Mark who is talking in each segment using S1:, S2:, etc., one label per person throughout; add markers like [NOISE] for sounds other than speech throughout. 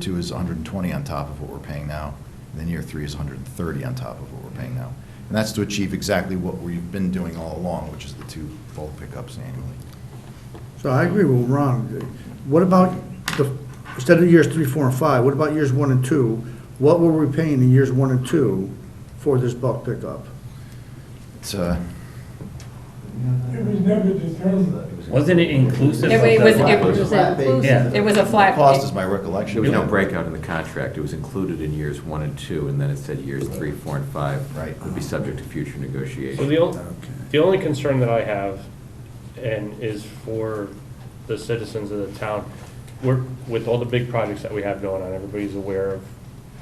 S1: two is 120 on top of what we're paying now, and then year three is 130 on top of what we're paying now. And that's to achieve exactly what we've been doing all along, which is the two full pickups annually.
S2: So I agree with Ron. What about the, instead of years three, four, and five, what about years one and two? What were we paying in years one and two for this bulk pickup?
S1: It's, uh,
S3: It was never determined.
S4: Wasn't it inclusive?
S5: It
S4: of
S5: wa-
S4: the-
S5: was, it was
S4: Yeah.
S5: inclusive, it was a flat.
S1: Cost is my recollection.
S6: There was no breakout in the contract, it was included in years one and two, and then it said years three, four, and five.
S1: Right.
S6: Would be subject to future negotiation.
S7: So the only, the only concern that I have, and is for the citizens of the town, we're, with all the big projects that we have going on, everybody's aware of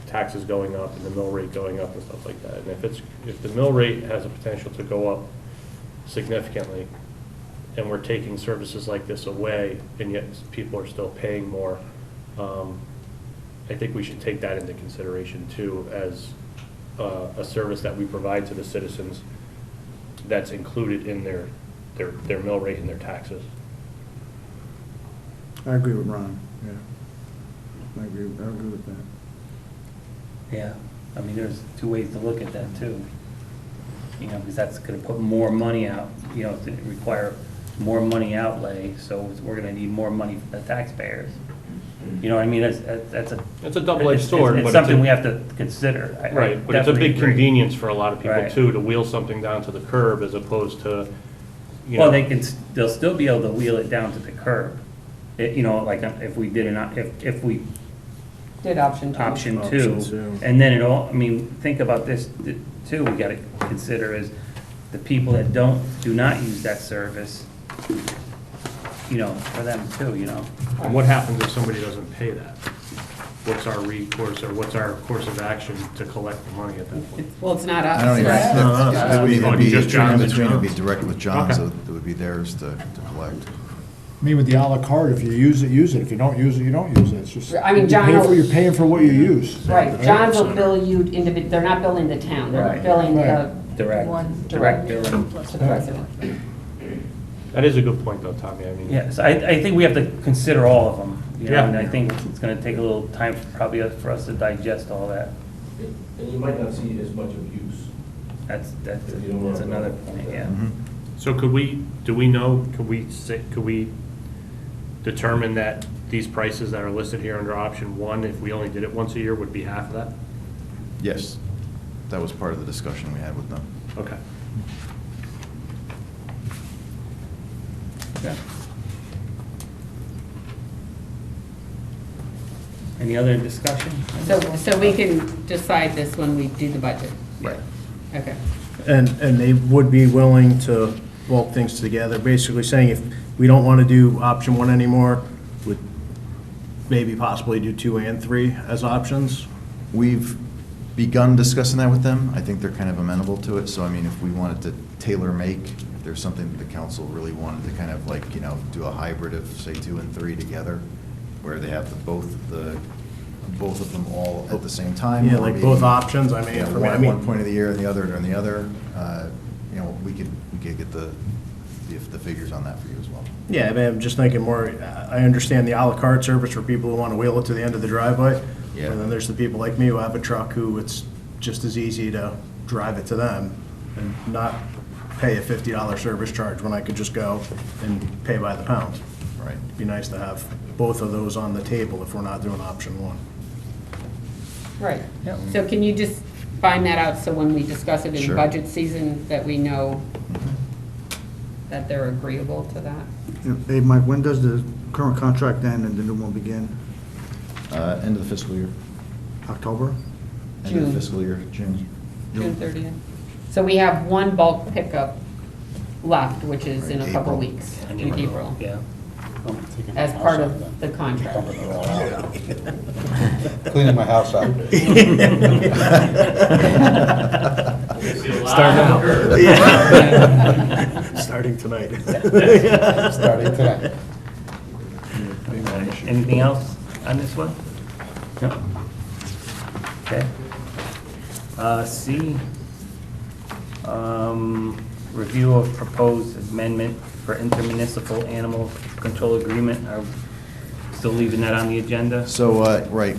S7: taxes going up and the mill rate going up and stuff like that. And if it's, if the mill rate has a potential to go up significantly, and we're taking services like this away, and yet people are still paying more, um, I think we should take that into consideration too, as uh, a service that we provide to the citizens that's included in their, their, their mill rate and their taxes.
S2: I agree with Ron, yeah. I agree, I agree with that.
S4: Yeah, I mean, there's two ways to look at that too. You know, because that's gonna put more money out, you know, it's gonna require more money outlay, so we're gonna need more money from the taxpayers. You know what I mean, that's, that's a.
S7: It's a double-edged
S4: it's-
S7: sword,
S4: It's
S7: but it's
S4: something
S7: a-
S4: we have to consider. I- I
S7: Right, but it's a
S4: definitely
S7: big
S4: agree.
S7: convenience for a lot of people
S4: Right.
S7: too, to wheel something down to the curb as opposed to, you know.
S4: Well, they can, s- they'll still be able to wheel it down to the curb. It, you know, like uh, if we did an, if, if we
S5: Did option two.
S4: option
S2: Option two.
S4: two. And then it all, I mean, think about this th- too, we gotta consider is the people that don't, do not use that service, you know, for them too, you know?
S7: And what happens if somebody doesn't pay that? What's our recourse or what's our course of action to collect the money at
S4: [LAUGHS]
S7: that point?
S5: Well, it's not
S1: I don't even,
S5: us, right?
S1: that's- that would either be,
S7: Just Johns
S1: in
S7: and
S1: between, it'd be
S7: Johns.
S1: direct with Johns,
S7: Okay.
S1: so it would be theirs to to collect.
S8: I mean, with the à la carte, if you use it, use it. If you don't use it, you don't use it. It's just.
S5: I mean,
S8: you
S5: John
S8: pay for-
S5: will-
S8: You're paying for what you use.
S5: Right, John's will bill you individ, they're not billing the town, they're
S4: Right.
S5: billing
S8: Right.
S5: the.
S4: Direct.
S5: One
S4: Direct
S5: direct
S4: billing.
S5: to the resident.
S7: That is a good point though, Tommy, I mean.
S4: Yes, I, I think we have to consider all of them, you know,
S7: Yeah.
S4: and I think it's gonna take a little time probably for us to digest all that.
S9: And you might not see as much abuse.
S4: That's, that's, that's another point, yeah.
S7: So could we, do we know, could we say, could we determine that these prices that are listed here under option one, if we only did it once a year, would be half of that?
S1: Yes, that was part of the discussion we had with them.
S7: Okay. [LAUGHS]
S4: Yeah. Any other discussion?
S5: So, so we can decide this when we do the budget.
S1: Right.
S5: Okay.
S10: And, and they would be willing to bulk things together, basically saying if we don't want to do option one anymore, would maybe possibly do two and three as options?
S1: We've begun discussing that with them. I think they're kind of amenable to it, so I mean, if we wanted to tailor-make, if there's something that the council really wanted to kind of like, you know, do a hybrid of, say, two and three together, where they have the both, the, both of them all at the same time.
S10: Yeah,
S1: or
S10: like
S1: maybe,
S10: both options, I mean,
S1: Yeah,
S10: for
S1: one
S10: me, I
S1: at one
S10: mean-
S1: point of the year and the other during the other, uh, you know, we could, we could get the, the the figures on that for you as well.
S10: Yeah, I mean, I'm just thinking more, uh, I understand the à la carte service for people who want to wheel it to the end of the driveway.
S1: Yeah.
S10: And then there's the people like me who have a truck who it's just as easy to drive it to them and not pay a fifty dollar service charge when I could just go and pay by the pound.
S1: Right.
S10: It'd Be nice to have both of those on the table if we're not doing option one.
S5: Right. So can you just find that out so when we discuss it in
S1: Sure.
S5: budget season, that we know that they're agreeable to that?
S2: Hey, Mike, when does the current contract end and the new one begin?
S1: Uh, End of the fiscal year,
S2: October?
S1: end of
S5: June.
S1: the fiscal year, June.
S5: June 30th? So we have one bulk pickup left, which is in a couple
S1: April.
S5: weeks, in April,
S4: Yeah. [LAUGHS]
S5: as part of the contract.
S1: [LAUGHS]
S5: [LAUGHS]
S8: Cleaning my house out.
S1: Starting
S4: out.
S7: [LAUGHS]
S5: [LAUGHS]
S10: Starting tonight.
S8: [LAUGHS]
S1: [LAUGHS]
S8: Starting tonight.
S4: Anything else on this one? No? Okay. Uh, C, um, review of proposed amendment for intermunicipal animal control agreement. Are- still leaving that on the agenda?
S1: So, uh, right,